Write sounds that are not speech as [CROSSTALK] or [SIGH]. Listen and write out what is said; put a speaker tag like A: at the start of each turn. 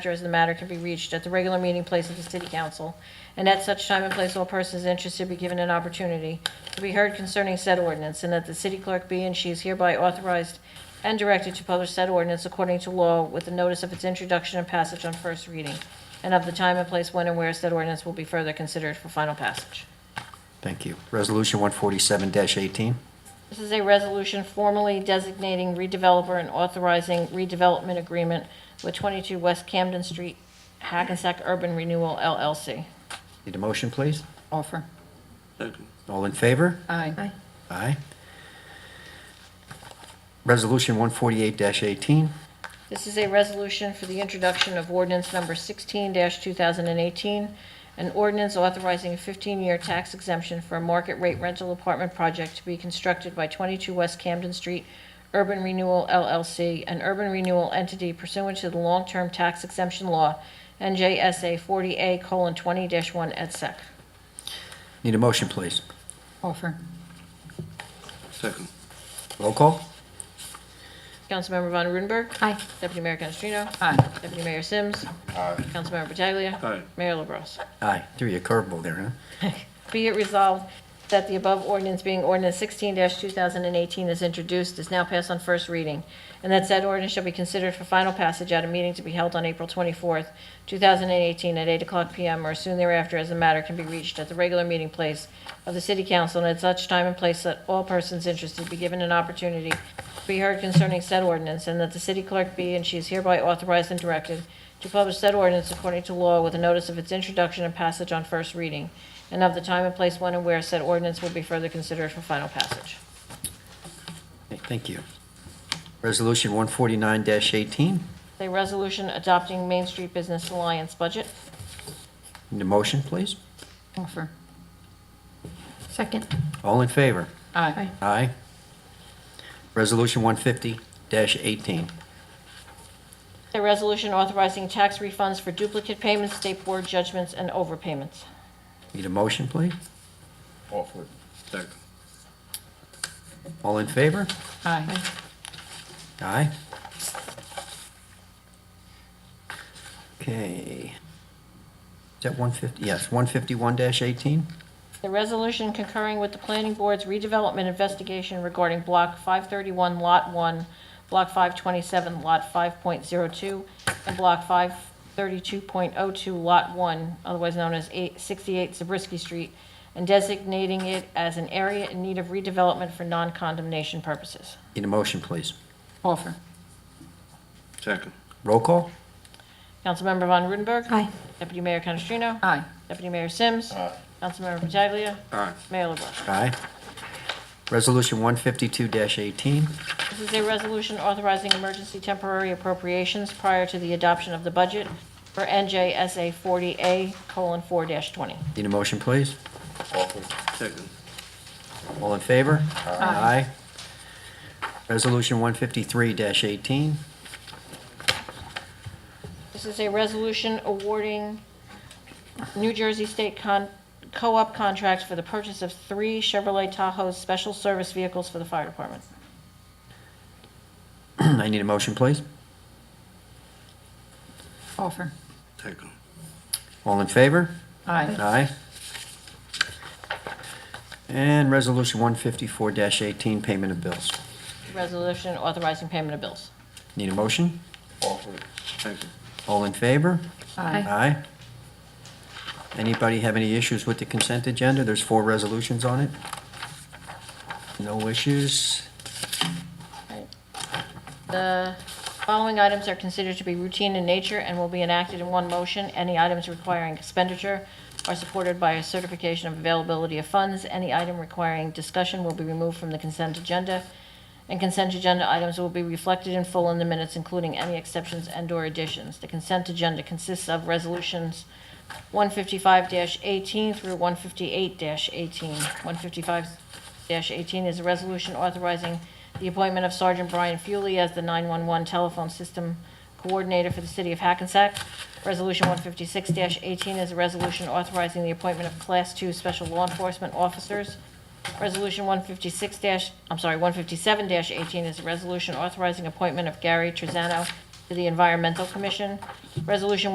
A: as the matter can be reached at the regular meeting place of the city council, and at such time and place all persons interested be given an opportunity to be heard concerning said ordinance, and that the city clerk be and she is hereby authorized and directed to publish said ordinance according to law with the notice of its introduction and passage on first reading, and of the time and place when and where said ordinance will be further considered for final passage.
B: Thank you. Resolution 147-18.
A: This is a resolution formally designating redeveloper and authorizing redevelopment agreement with 22 West Camden Street, Hackensack Urban Renewal LLC.
B: Need a motion, please?
C: Offer.
D: Second,
B: All in favor?
C: Aye.
B: Aye. Resolution 148-18.
A: This is a resolution for the introduction of ordinance number 16-2018, an ordinance authorizing a 15-year tax exemption for a market-rate rental apartment project to be constructed by 22 West Camden Street Urban Renewal LLC, an urban renewal entity pursuant to the long-term tax exemption law, NJSA 40A:20-1 et sec.
B: Need a motion, please?
C: Offer.
D: second,
B: Roll call?
A: Councilmember Von Rudenberg.
C: Aye.
A: Deputy Mayor Canestrino.
C: Aye.
A: Deputy Mayor Sims. Councilmember Pataglia.
D: Aye.
A: Mayor LaBrus.
B: Aye. Threw you a curveball there, huh?
A: Be it resolved that the above ordinance being ordinance 16-2018 is introduced, is now passed on first reading, and that said ordinance shall be considered for final passage at a meeting to be held on April 24th, 2018, at 8 o'clock p.m. or soon thereafter, as the matter can be reached at the regular meeting place of the city council, and at such time and place that all persons interested be given an opportunity to be heard concerning said ordinance, and that the city clerk be, and she is hereby authorized and directed to publish said ordinance according to law with a notice of its introduction and passage on first reading, and of the time and place when and where said ordinance will be further considered for final passage.
B: Okay, Thank you. Resolution 149-18.
A: A resolution adopting Main Street Business Alliance budget.
B: Need a motion, please?
C: Offer. Second.
B: All in favor?
C: Aye.
B: Aye. Resolution 150-18.
A: A resolution authorizing tax refunds for duplicate payments, state board judgments, and overpayments.
B: Need a motion, please?
D: second,
B: All in favor?
C: Aye.
B: Aye. Okay. Is that 150, yes, 151-18?
A: The resolution concurring with the planning board's redevelopment investigation regarding Block 531, Lot 1, Block 527, Lot 5.02, and Block 532.02, Lot 1, otherwise known as 8 68 Zabriskie Street, and designating it as an area in need of redevelopment for non-condemnation purposes.
B: Need a motion, please.
C: Offer.
D: second,
B: Roll call?
A: Councilmember Von Rudenberg.
C: Aye.
A: Deputy Mayor Canestrino.
C: Aye.
A: Deputy Mayor Sims. Councilmember Pataglia.
D: aye,
A: Mayor LaBrus.
B: Aye. Resolution 152-18.
A: This is a resolution authorizing emergency temporary appropriations prior to the adoption of the budget for NJSA 40A:4-20.
B: Need a motion, please.
D: second,
B: All in favor? Aye. Resolution 153-18.
A: This is a resolution awarding New Jersey State Con- Co-op contracts for the purchase of three Chevrolet Tahoe special service vehicles for the fire department.
B: [CLEARS THROAT] I need a motion, please.
C: Offer.
D: second,
B: All in favor?
C: Aye.
B: Aye. And Resolution 154-18, payment of bills.
A: Resolution authorizing payment of bills.
B: Need a motion?
D: second.
B: All in favor?
C: Aye.
B: Aye. Anybody have any issues with the consent agenda? There's four resolutions on it. No issues?
A: Right. The following items are considered to be routine in nature and will be enacted in one motion. Any items requiring expenditure are supported by a certification of availability of funds. Any item requiring discussion will be removed from the consent agenda, and consent agenda items will be reflected in full in the minutes, including any exceptions and/or additions. The consent agenda consists of resolutions 155-18 through 158-18. 155-18 is a resolution authorizing the appointment of Sergeant Brian Fuely as the 911 telephone system coordinator for the city of Hackensack. Resolution 156-18 is a resolution authorizing the appointment of Class II special law enforcement officers. Resolution 156 dash, I'm sorry, 157-18 is a resolution authorizing appointment of Gary Trezano to the Environmental Commission. Resolution